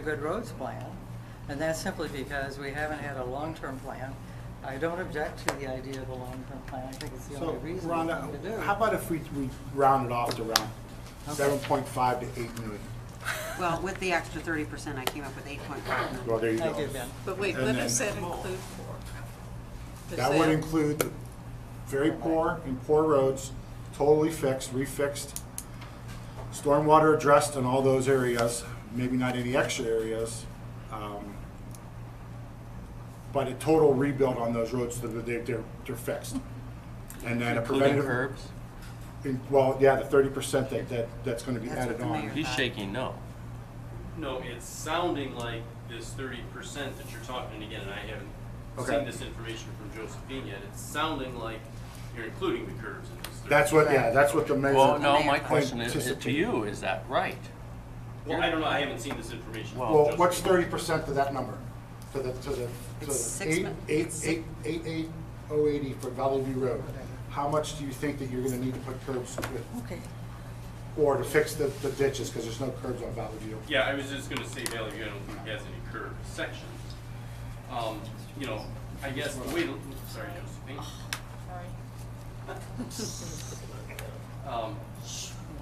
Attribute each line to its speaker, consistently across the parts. Speaker 1: a good roads plan, and that's simply because we haven't had a long-term plan. I don't object to the idea of a long-term plan, I think it's the
Speaker 2: So,
Speaker 1: only reasonable thing to do.
Speaker 2: Rhonda, how about if we, we round it off to around
Speaker 1: Okay.
Speaker 2: seven point five to eight million?
Speaker 3: Well, with the extra thirty percent, I came up with eight point five million.
Speaker 2: Well, there you go.
Speaker 1: Thank you, Ben.
Speaker 4: But wait,
Speaker 2: And
Speaker 4: what
Speaker 2: then-
Speaker 4: does that include for? Does
Speaker 2: That would
Speaker 4: that-
Speaker 2: include the very poor and poor roads, totally fixed, refixed, stormwater addressed in all those areas, maybe not any extra areas. um, But a total rebuild on those roads so that they're, they're, they're fixed. And then a
Speaker 5: Including
Speaker 2: preventative,
Speaker 5: curbs?
Speaker 2: in- well, yeah, the thirty percent that, that, that's gonna be
Speaker 3: That's what
Speaker 2: added
Speaker 3: the
Speaker 2: on.
Speaker 3: mayor-
Speaker 5: He's shaking no.
Speaker 6: No, it's sounding like this thirty percent that you're talking, and again, and I haven't
Speaker 2: Okay.
Speaker 6: seen this information from Josephine yet, it's sounding like you're including the curves in this thirty.
Speaker 2: That's what, yeah, that's what the measure.
Speaker 5: Well, no,
Speaker 3: mayor.
Speaker 5: my question is, is to
Speaker 2: Anticipate.
Speaker 5: you, is that right?
Speaker 6: Well, I don't know, I haven't seen this information. from
Speaker 2: Well, what's
Speaker 6: Josephine.
Speaker 2: thirty percent of that number? To the, to the, to
Speaker 3: It's
Speaker 2: the
Speaker 3: six
Speaker 2: eight,
Speaker 3: mi-
Speaker 2: eight, eight, eight, eight, oh eighty for Valley View Road. How much do you think that you're gonna need to put curbs with,
Speaker 1: Okay,
Speaker 2: or to fix the, the ditches, cause there's no curbs on Valley View?
Speaker 6: Yeah, I was just gonna say, Valley View, I don't think has any curved sections. Um, you know, I guess the way, to- sorry, Josephine. Um,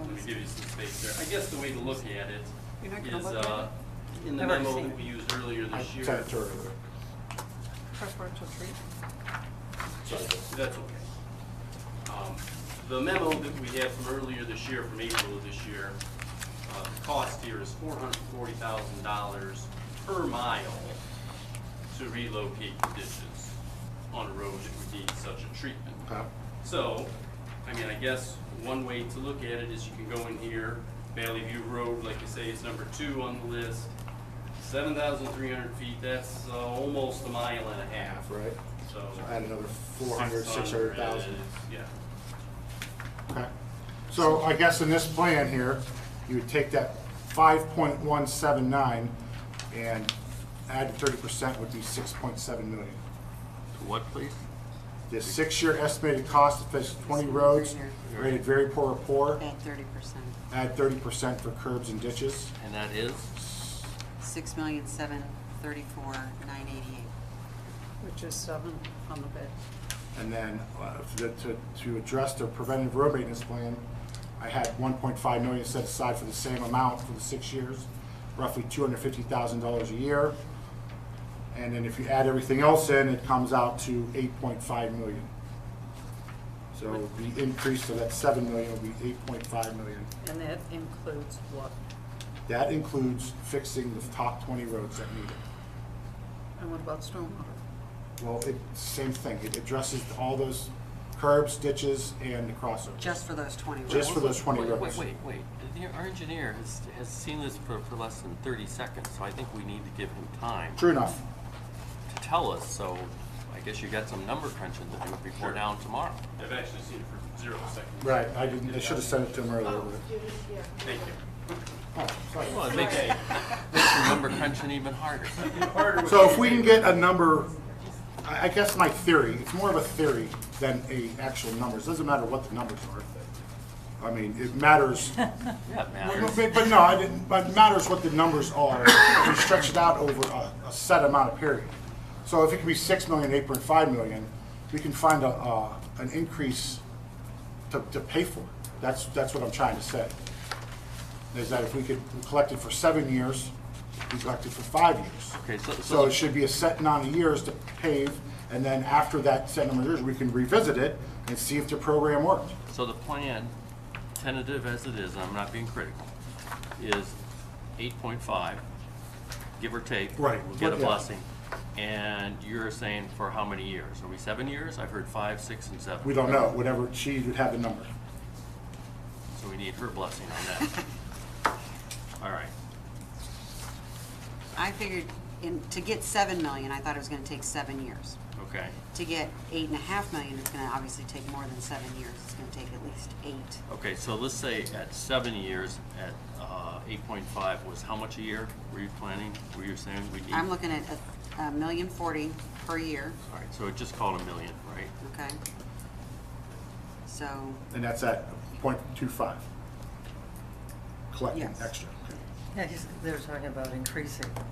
Speaker 6: let me give you some space there. I guess the way to look at it
Speaker 3: You're not gonna
Speaker 6: is,
Speaker 3: look at
Speaker 6: uh, in the
Speaker 1: I've already
Speaker 6: memo
Speaker 1: seen it.
Speaker 6: that we used earlier
Speaker 2: I
Speaker 6: this year.
Speaker 2: sent it to her earlier.
Speaker 4: Preferential treatment.
Speaker 6: That's okay. Um, The memo that we had from earlier this year, from April of this year, uh, the cost here is four hundred forty thousand dollars per mile to relocate the ditches on a road that would need such a treatment.
Speaker 2: Okay.
Speaker 6: So, I mean, I guess one way to look at it is you can go in here, Valley View Road, like you say, is number two on the list. Seven thousand three hundred feet, that's uh, almost a mile and a half.
Speaker 2: Half, right?
Speaker 6: So.
Speaker 2: So add another four hundred, six hundred thousand.
Speaker 6: Yeah.
Speaker 2: Okay. So I guess in this plan here, you would take that five point one seven nine and add thirty percent would be six point seven million.
Speaker 5: To what, please?
Speaker 2: The six-year estimated cost to fix twenty roads rated very poor or poor,
Speaker 3: At thirty percent,
Speaker 2: add thirty percent for curbs and ditches.
Speaker 5: And that is?
Speaker 3: six million, seven, thirty-four, nine eighty-eight.
Speaker 4: Which is seven on the bid.
Speaker 2: And then uh, to, to- to address the preventive road maintenance plan, I had one point five million set aside for the same amount for the six years, roughly two hundred fifty thousand dollars a year. And then if you add everything else in, it comes out to eight point five million. So the increase to that seven million will be eight point five million.
Speaker 4: And that includes what?
Speaker 2: That includes fixing the top twenty roads that need it.
Speaker 4: And what about stormwater?
Speaker 2: Well, it, same thing, it addresses all those curbs, ditches, and the crossovers.
Speaker 3: Just for those twenty roads.
Speaker 2: Just for those twenty
Speaker 5: Wait,
Speaker 2: roads.
Speaker 5: Wait, wait, wait. The- Our engineer has, has seen this for, for less than thirty seconds, so I think we need to give him time to
Speaker 2: True enough.
Speaker 5: tell us, so I guess you got some number crunching to do before
Speaker 6: Sure.
Speaker 5: down tomorrow.
Speaker 6: I've actually seen it for zero seconds.
Speaker 2: Right, I didn't, I should have sent it to him earlier.
Speaker 6: Thank you.
Speaker 2: but-
Speaker 5: Well, it makes, makes the number crunching even harder.
Speaker 6: Harder with
Speaker 2: So if
Speaker 6: you,
Speaker 2: we can
Speaker 6: Dave.
Speaker 2: get a number, I, I guess my theory, it's more of a theory than a actual numbers, doesn't matter what the numbers are. I mean, it matters,
Speaker 5: Yeah, it
Speaker 2: but,
Speaker 5: matters.
Speaker 2: but- but no, I didn't, but it matters what the numbers are, we stretch it out over a, a set amount of period. So if it could be six million, eight point five million, we can find a, uh, an increase to, to pay for it. That's, that's what I'm trying to say. Is that if we could, we collected for seven years, we collected for five years.
Speaker 5: Okay, so- so-
Speaker 2: So it should be a set amount of years to pave, and then after that set number of years, we can revisit it and see if the program worked.
Speaker 5: So the plan, tentative as it is, and I'm not being critical, is eight point five, give or take.
Speaker 2: Right.
Speaker 5: We'll get a
Speaker 2: Yeah.
Speaker 5: blessing. And you're saying for how many years? Are we seven years? I've heard five, six, and seven.
Speaker 2: We don't know, whatever, she would have the number.
Speaker 5: So we need her blessing on that. All right.
Speaker 3: I figured, in, to get seven million, I thought it was gonna take seven years.
Speaker 5: Okay.
Speaker 3: To get eight and a half million, it's gonna obviously take more than seven years, it's gonna take at least eight.
Speaker 5: Okay, so let's say at seven years, at uh, eight point five was how much a year were you planning? Were you saying we need?
Speaker 3: I'm looking at a, a million forty per year,
Speaker 5: All right, so it just called a million, right?
Speaker 3: okay? So,
Speaker 2: And that's at point two five. Collecting
Speaker 3: Yes.
Speaker 2: extra.
Speaker 1: Yeah, he's, they're talking about increasing.